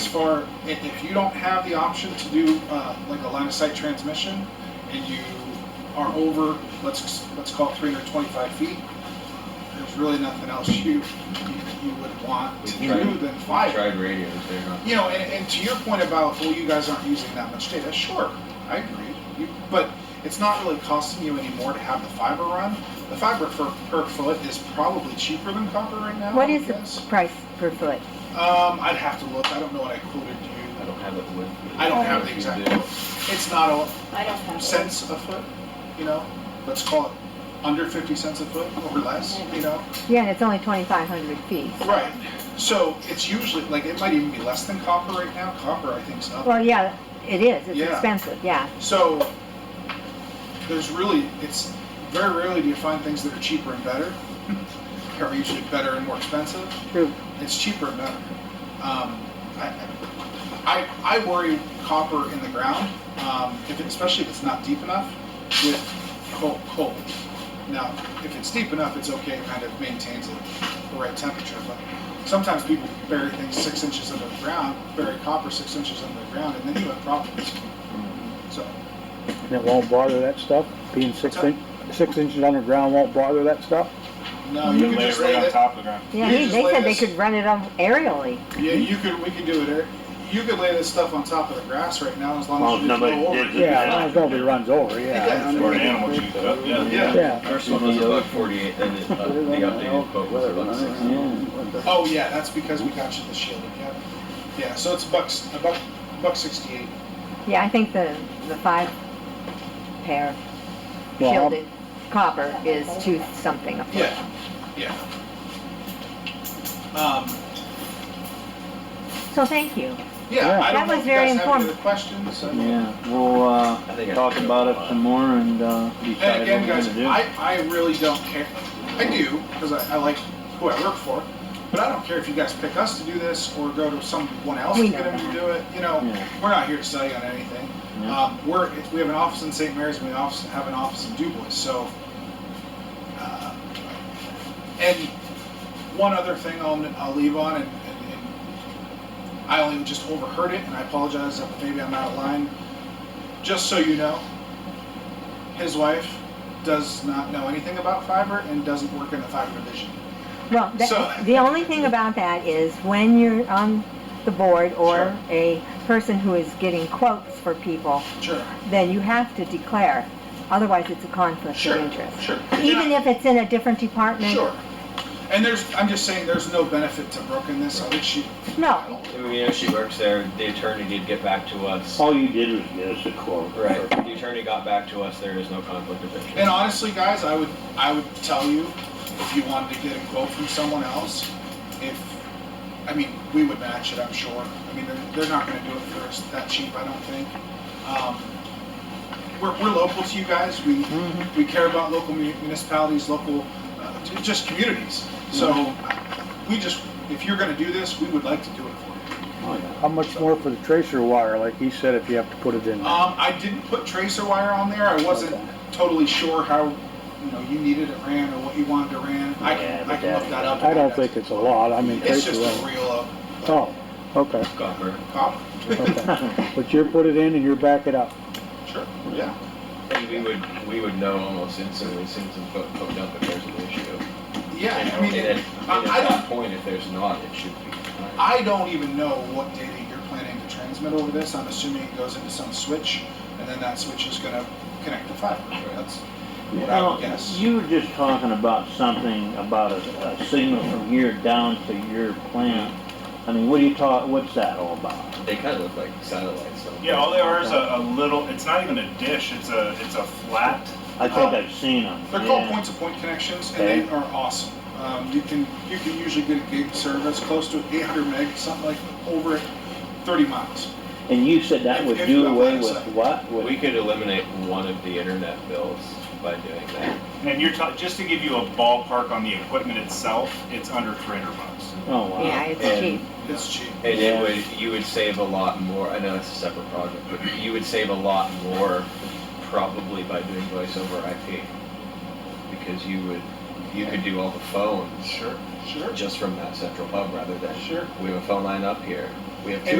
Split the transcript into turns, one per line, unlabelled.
far, i- if you don't have the option to do uh, like a line of sight transmission and you are over, let's, let's call it 325 feet, there's really nothing else you, you you would want to
We tried-
do than
I
fire.
tried radios, they're not.
You know, and, and to your point about, well, you guys aren't using that much data, sure, I agree. You, but it's not really costing you any more to have the fiber run. The fiber for, per foot is probably cheaper than copper right now.
What
I
is the
guess.
price per foot?
Um, I'd have to look, I don't know what I quoted
I
you.
don't have it with me.
I don't have
If
the
you
exact
do,
quote. It's not
I
a
don't have.
cents a foot, you know, let's call it under fifty cents a foot or less, you know?
Yeah, and it's only 2,500 feet.
Right, so it's usually, like, it might even be less than copper right now, copper I think's up
Well, yeah, it is, it's
Yeah.
expensive, yeah.
So there's really, it's very rarely do you find things that are cheaper and better. They're usually better and more expensive.
True.
It's cheaper and better. Um, I, I, I worry copper in the ground, um, if it, especially if it's not deep enough with coal. coal. Now, if it's deep enough, it's okay, it kind of maintains it the right temperature. But sometimes people bury things six inches under the ground, bury copper six inches under the ground, and then you have problems. So.
And it won't bother that stuff? Being six in, six inches underground won't bother that stuff?
No,
And
you
then
could
lay it
just lay
right on
it.
top of the ground.
Yeah,
You
he-
just
they
lay
said they
this-
could run it on aerially.
Yeah, you could. We could do it. Eric. You could lay this stuff on top of the grass right now, as long
Well,
as you just
nobody
go over.
digs
it.
it.
Yeah, as long as nobody runs over,
Yeah, I
yeah.
mean,
Or an animal chews it up, yeah.
Yeah.
Yeah,
First one was a buck forty-eight, then it, uh, the updated quote was a buck sixty.
Oh yeah, that's because we got you the shielded. Yeah. Yeah. So it's bucks a buck buck sixty eight.
Yeah, I think the, the five pair
Well,
shielded copper is two something a foot.
Yeah. Yeah. Um,
So thank you.
yeah. I
Yeah.
That
don't know
was
if
very
you guys have any
informative.
other questions. I mean-
Yeah, we'll,
I think I
uh, talk
took
about
a
it
lot.
some more and, uh,
And
decide what
again,
we're
guys,
gonna do.
I, I really don't care. I do, because I, I like who I work for, but I don't care if you guys pick us to do this or go to someone else to
We
get
know
them to
that.
do it. You know,
Yeah.
we're not here to sell you on anything.
Yeah.
Um, we're, if we have an office in St. Mary's and we office, have an office in Dubois, so. uh, And one other thing I'll, I'll leave on, and, and, and I only just overheard it, and I apologize if maybe I'm out of line. Just so you know, his wife does not know anything about fiber and doesn't work in the fiber division.
Well, that-
So-
the only thing about that is when you're on the board
Sure.
or a person who is getting quotes for people,
Sure.
then you have to declare, otherwise it's a conflict
Sure.
of interest.
Sure.
Even if it's in a different department?
Sure. And there's, I'm just saying, there's no benefit to Brooke in this. I think she.
No.
You know, she works there, the attorney did get back to us.
All you did was get us a quote.
Right, the attorney got back to us, there is no conflict of interest.
And honestly, guys, I would, I would tell you, if you wanted to get a quote from someone else, if, I mean, we would match it, I'm sure. I mean, they're, they're not gonna do it for us that cheap, I don't think. Um, We're, we're local to you guys, we,
Mm-hmm.
we care about local mu- municipalities, local, uh, ju- just communities. So,
Mm-hmm.
we just, if you're gonna do this, we would like to do it for you.
how much more for the tracer wire, like he said, if you have to put it in? there?
Um, I didn't put tracer wire on there. I wasn't
Okay.
totally sure how, you know, you needed it ran or what you wanted it ran. I
Yeah,
can, I
but
can look that up.
I don't think it's a lot, I mean,
It's
tracer
just a uh,
wire.
reel of
Oh, okay,
Copper.
copper.
okay. But you put it in and you back it up.
Sure, yeah.
And we would, we would know almost instantly, as soon as it's hooked hooked up, if there's an issue.
Yeah,
And
I mean,
and at-
it-
and
I- I
At
don't,
that point, if there's not, it should be. fine.
I don't even know what data you're planning to transmit over this. I'm assuming it goes into some switch and then that switch is gonna connect to fiber. That's what I
Now,
would guess.
You were just talking about something, about a, a signal from here down to your plant. I mean, what are you talk, what's that all about?
They kind of look like satellites, so.
Yeah, all they are is a, a little, it's not even a dish, it's a, it's a flat,
I think I've seen them.
They're called point-to-point connections, and they are awesome. Um, you can you can usually get a gig service close to 800 meg, something like over 30 miles.
And you said that would
If- if
do
you have
away with
website.
what? With-
We could eliminate one of the internet bills by doing that.
and you're talking, just to give you a ballpark on the equipment itself, it's under three hundred bucks.
Oh, wow.
Yeah, it's
And-
cheap.
It's cheap.
And it
Yeah.
would, you would save a lot more, I know it's a separate project, but you would save a lot more probably by doing voice over IP. Because you would, you could do all the phones
Sure, sure.
just from that central hub rather than,
Sure.
we have a phone line up here, we have two
And